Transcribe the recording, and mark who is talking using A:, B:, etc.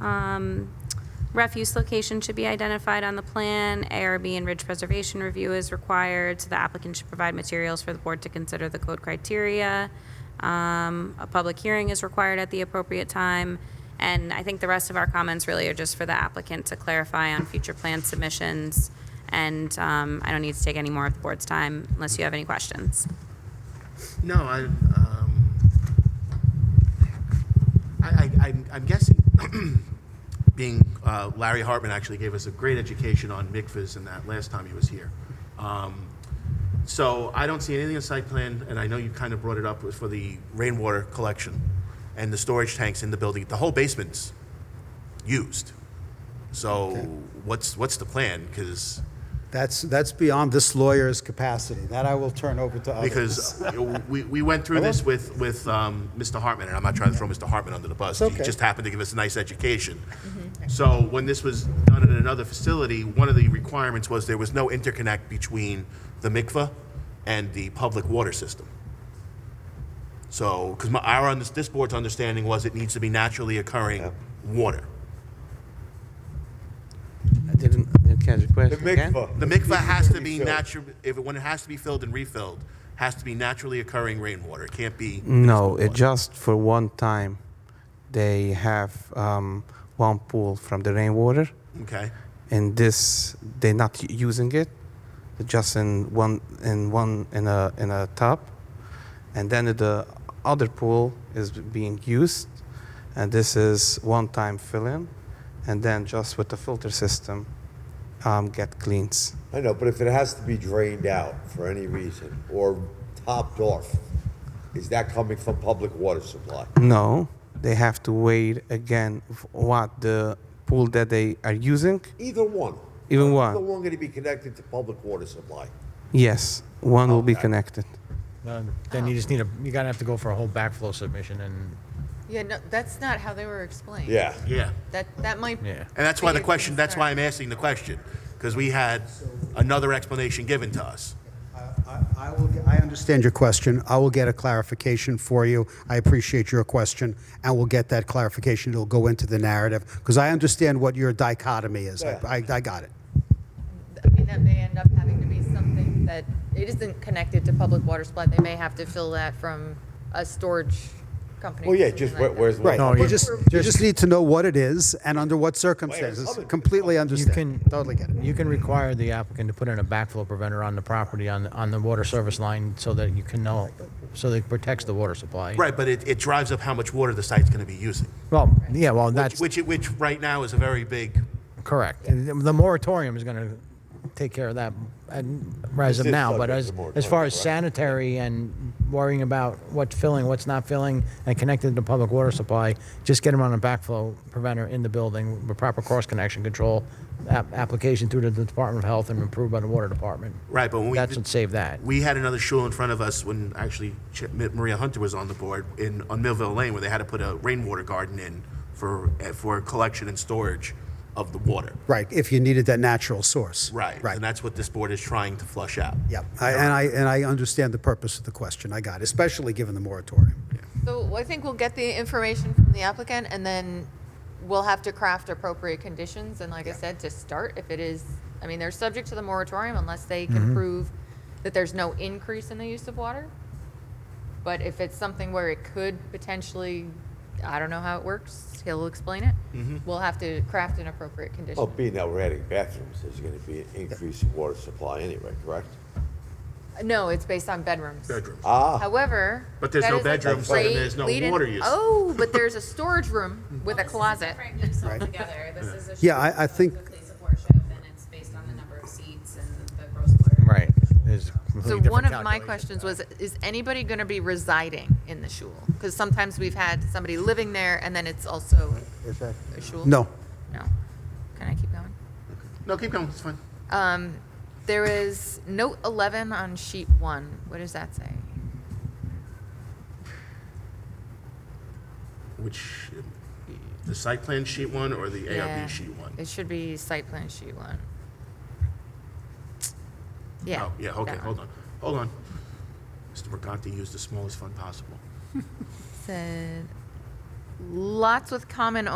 A: Um, Refuse location should be identified on the plan. ARB and ridge preservation review is required, so the applicant should provide materials for the board to consider the code criteria. Um, A public hearing is required at the appropriate time. And I think the rest of our comments really are just for the applicant to clarify on future plan submissions. And um, I don't need to take any more of the board's time unless you have any questions.
B: No, I, um, I, I, I'm- I'm guessing, being, uh, Larry Hartman actually gave us a great education on mikvahs and that last time he was here. Um, So I don't see anything in the site plan, and I know you kind of brought it up was for the rainwater collection and the storage tanks in the building. The whole basement's used. So what's, what's the plan? Because
C: That's, that's beyond this lawyer's capacity. That I will turn over to others.
B: because you know, we, we went through this with, with um, Mr. Hartman, and I'm not trying to throw Mr. Hartman under the bus.
C: It's
B: He
C: okay.
B: just happened to give us a nice education. So when this was done in another facility, one of the requirements was there was no interconnect between the mikveh and the public water system. So, because my, our, under- this board's understanding was it needs to be naturally occurring water.
D: I didn't, I didn't catch the
E: The
D: question. again.
E: mikvah.
B: The mikveh has to be
E: Refilled.
B: natural, if, when it has to be filled and refilled, has to be naturally occurring rainwater. It can't be.
D: No, it just for one time, they have um, one pool from the rainwater,
B: Okay.
D: and this they're not u- using it, They're just in one in one in a in a tub, and then the other pool is being used, and this is one time fill in, and then just with the filter system, um, get cleans.
E: I know, but if it has to be drained out for any reason or topped off, is that coming from public water supply?
D: No, they have to wait again. f- What the pool that they are using?
E: Either one.
D: Even
E: Either
D: one?
E: one going to be connected to public water supply.
D: Yes, one will be
E: Okay.
D: connected.
F: Um, Then you just need a, you're gonna have to go for a whole backflow submission and,
G: Yeah, no, that's not how they were explained.
E: Yeah.
B: Yeah.
G: That, that might.
F: Yeah.
B: And that's why
G: be
B: the
G: a
B: question, that's why I'm asking the question, because we had another explanation given to us.
C: I- I will get- I understand your question. I will get a clarification for you. I appreciate your question, and we'll get that clarification. It'll go into the narrative, because I understand what your dichotomy is. I, I I got it.
G: I mean, that may end up having to be something that, it isn't connected to public water supply. They may have to fill that from a storage company.
E: Well,
G: or
E: yeah,
G: something
E: just
G: like
E: where,
G: that.
E: where's
C: Right.
E: the
C: You just, you just need to know what it is and under what circumstances.
E: coming from.
C: Completely
F: you can.
C: understand. Totally get it.
F: You can require the applicant to put in a backflow preventer on the property, on, the- on the water service line, so that you can know, so that it protects the water supply.
B: Right, but it, it drives up how much water the site's gonna be using,
F: Well, yeah, well, that's
B: which, which right now is a very big,
F: correct. And The the moratorium is gonna take care of that and- as of
E: It's
F: now,
E: subject
F: but as,
E: to
F: as
E: moratorium,
F: far as
E: correct.
F: sanitary and worrying about what's filling, what's not filling, and connected to public water supply, just get them on a backflow preventer in the building with proper cross connection control, app- application through to the Department of Health and approved by the Water Department.
B: right, but when we.
F: That's what saved that.
B: We had another shul in front of us when actually Ch- Ma- Maria Hunter was on the board in, on Millville Lane, where they had to put a rainwater garden in for, eh, for collection and storage of the water.
C: Right, if you needed that natural source.
B: Right,
C: Right.
B: and that's what this board is trying to flush out.
C: Yep. I- And I, and I understand the purpose of the question. I got it, especially given the moratorium.
G: So I think we'll get the information from the applicant and then we'll have to craft appropriate conditions. And like I said, to start, if it is, I mean, they're subject to the moratorium unless they can
B: Mm-hmm.
G: prove that there's no increase in the use of water. But if it's something where it could potentially, I don't know how it works, he'll explain it.
B: Mm-hmm.
G: We'll have to craft an appropriate condition.
B: Oh.
E: Well, being that we're adding bathrooms, there's going to be an increase in oh, water supply anyway, correct?
G: No, it's based on bedrooms.
B: Bedroom.
E: Ah,
G: However.
B: But there's
G: that
B: no
G: is like a
B: bedrooms, so then
G: great
B: there's no
G: lead-in-
B: water use.
G: Oh, but there's a storage room with a closet.
C: Yeah, I- I think-
F: Right. Is
G: So
F: completely different
G: one of my
F: calculation.
G: questions was, is anybody going to be residing in the shul? Because sometimes we've had somebody living there and then it's also a shul.
C: No.
G: No. Can I keep going?
B: No, keep going, it's fine.
G: There is note 11 on sheet one. What does that say?
B: Which, the site plan sheet one or the
G: Yeah.
B: ARB sheet one?
G: It should be site plan sheet one. Yeah.
B: Oh, yeah, okay,
G: that one.
B: hold on, hold on. Mr. Mercanti used the smallest fund possible.
G: Said, lots with common